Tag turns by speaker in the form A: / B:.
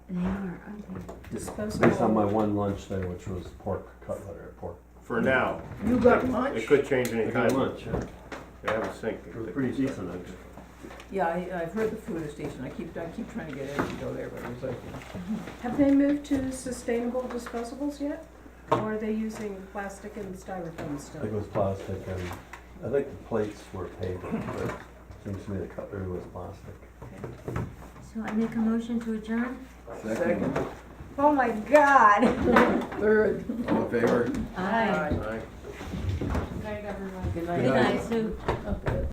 A: They are, aren't they?
B: Based on my
C: disposable.
B: one lunch thing, which was pork cutlet or pork.
D: For now,
C: You got lunch?
D: it could change
B: I
D: any
B: got
D: time.
B: lunch, yeah.
D: They have a sink.
B: It was pretty decent, actually.
C: Yeah, I, I've heard the food station, I keep, I keep trying to get in to go there, but it was open.
E: Have they moved to sustainable disposables yet? Or are they using plastic and styrofoam
B: I think it
E: still?
B: was plastic and, I think the plates were paper, but it seems to me the cutlery was plastic.
A: So I make a motion to adjourn?
C: Second,
A: Oh my God.
C: third.
F: All in favor?
A: Aye.
D: Aye.
E: Good night, everyone.
C: Good
A: Good
C: night.
A: night, Sue.
C: Okay.